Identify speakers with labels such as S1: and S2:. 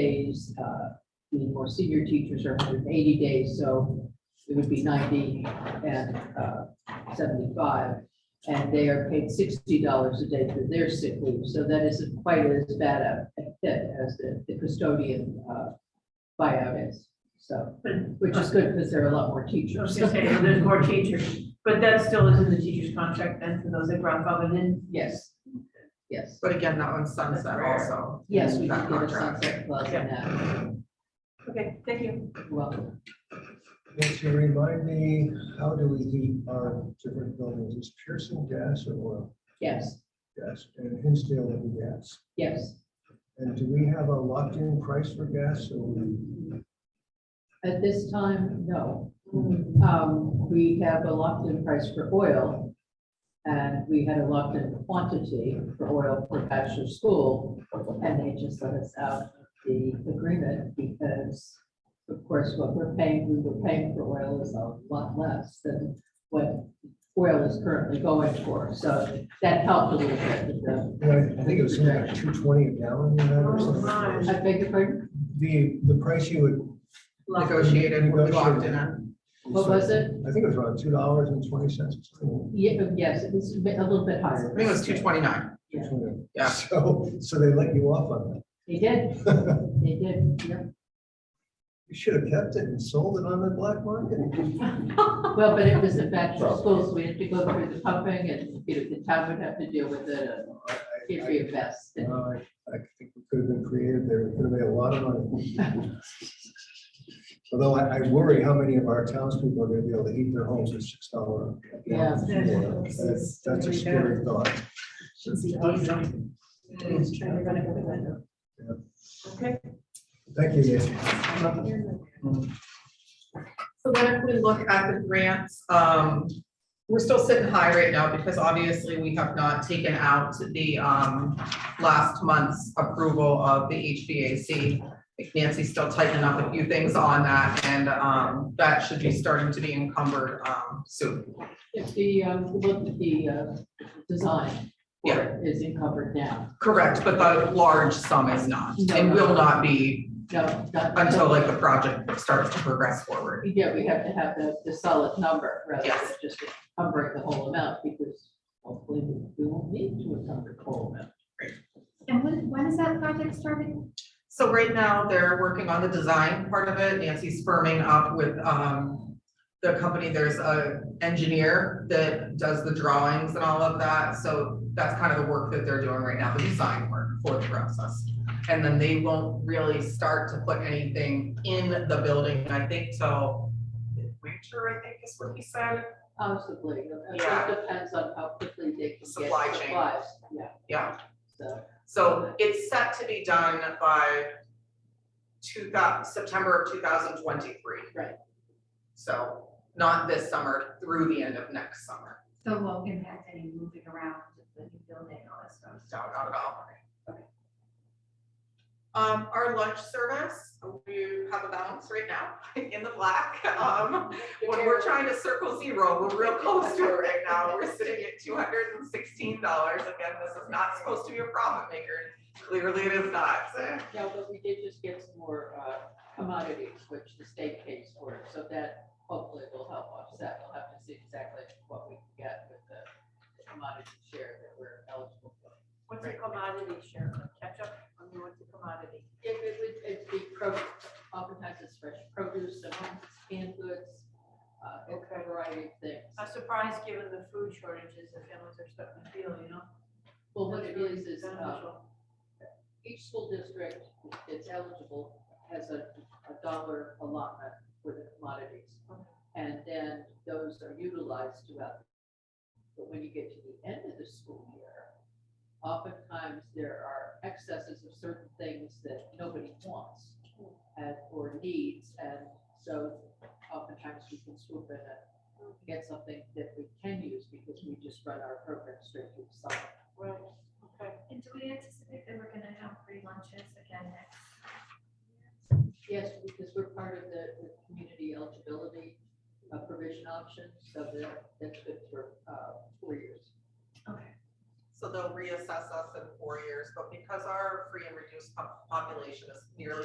S1: days, uh, the more senior teachers are hundred and eighty days, so it would be ninety and, uh, seventy-five. And they are paid sixty dollars a day for their sick leave, so that isn't quite as bad a, a hit as the, the custodian, uh, buyout is. So,
S2: But
S1: which is good because there are a lot more
S2: I was
S1: teachers.
S2: gonna say, well, there's more teachers, but that still is in the teacher's contract then for those that grandfathered in.
S1: Yes, yes,
S3: But again, that one's sunset
S2: That's
S3: also.
S1: yes, we
S3: That
S1: can get a
S3: contract.
S1: sunset clause in that,
S2: Okay, thank you.
S1: well.
S4: Can you remind me, how do we heat our different buildings? Is Pearson gas or oil?
S1: Yes,
S4: Gas. And Hinsdale and gas.
S1: yes.
S4: And do we have a locked-in price for gas or we?
S1: At this time, no. Um, we have a locked-in price for oil. And we had a locked-in quantity for oil for Bachelor School. And they just let us out of the agreement because, of course, what we're paying, we were paying for oil is a lot less than what oil is currently going for. So that helped a little bit with the,
S4: I think it was something like two twenty a gallon you had or
S2: Oh, my.
S4: something.
S1: I beg your pardon,
S4: The, the price you would.
S3: Negotiated, we locked
S4: Negotiated.
S3: in on.
S1: what was it?
S4: I think it was around two dollars and twenty cents.
S1: Yeah, yes, it was a bit- a little bit higher.
S3: I think it was two twenty-nine.
S1: Yeah.
S3: Yeah.
S4: So, so they let you off on
S1: They did,
S4: that.
S1: they did, yeah.
S4: You should have kept it and sold it on the black market.
S1: Well, but it was a bachelor school, so we had to go through the pumping and, you know, the town would have to deal with it. and It'd be a mess.
S4: No, Uh, I, I think we could have been creative there. We could have made a lot of money. Although I, I worry how many of our townspeople are gonna be able to heat their homes with six dollar.
S1: Yeah.
S4: That's that's a scary thought.
S2: Okay,
S4: Thank you, Nancy.
S3: So then if we look at the grants, um, we're still sitting high right now because obviously we have not taken out the, um, last month's approval of the HVAC. Like Nancy's still tightening up a few things on that and, um, that should be starting to be encumbered, um, soon.
S1: If the, um, look at the, uh, design for
S3: Yeah.
S1: it is encumbered now.
S3: Correct, but the large sum is not and will not be
S1: No, not.
S3: until like the project starts to progress forward.
S1: Yeah, we have to have the, the solid number rather than
S3: Yes.
S1: just encumbering the whole amount because hopefully we we won't need to encumber the whole amount.
S5: And when, when is that project starting?
S3: So right now, they're working on the design part of it. Nancy's firming up with um the company. There's a engineer that does the drawings and all of that. So that's kind of the work that they're doing right now, the design work for the process. And then they won't really start to put anything in the building, I think, till winter, I think is what he said.
S1: Possibly, it all
S3: Yeah.
S1: depends on how quickly they can get
S3: Supply chain.
S1: supplies. Yeah,
S3: Yeah,
S1: so,
S3: So it's set to be done by two thou- September of two thousand twenty-three.
S1: Right.
S3: So not this summer, through the end of next summer.
S5: So it won't impact any moving around, just the new building, all that stuff.
S3: No, not at all. Um, our lunch service, we have a balance right now in the black. Um, when we're trying to circle zero, we're real close to it right now. We're sitting at two hundred and sixteen dollars. Again, this is not supposed to be a profit maker. Clearly it is not.
S1: No, but we did just get some more uh, commodities, which the state pays for, so that hopefully will help offset. We'll have to see exactly what we can get with the the commodity share that we're eligible for.
S2: what's a commodity share? Catch up on the what's a commodity?
S1: It it would, it'd be uh, pro, oftentimes it's fresh produce, sometimes it's canned goods, uh, a variety of
S2: I'm
S1: things.
S2: surprised given the food shortages that families are starting to feel, you know?
S1: Well, what it is, is uh,
S2: Beneficial.
S1: each school district that's eligible has a, a dollar allotment for the commodities. And then those are utilized throughout. But when you get to the end of the school year, oftentimes there are excesses of certain things that nobody wants and, or needs. And so oftentimes we can swoop in and get something that we can use because we just run our program straight through the summer.
S2: Right, okay.
S5: And do we anticipate that we're gonna have free lunches again next?
S1: Yes, because we're part of the, the community eligibility uh, provision option, so that, that's good for, uh, four years.
S5: Okay.
S3: So they'll reassess us in four years, but because our free and reduced po- population is nearly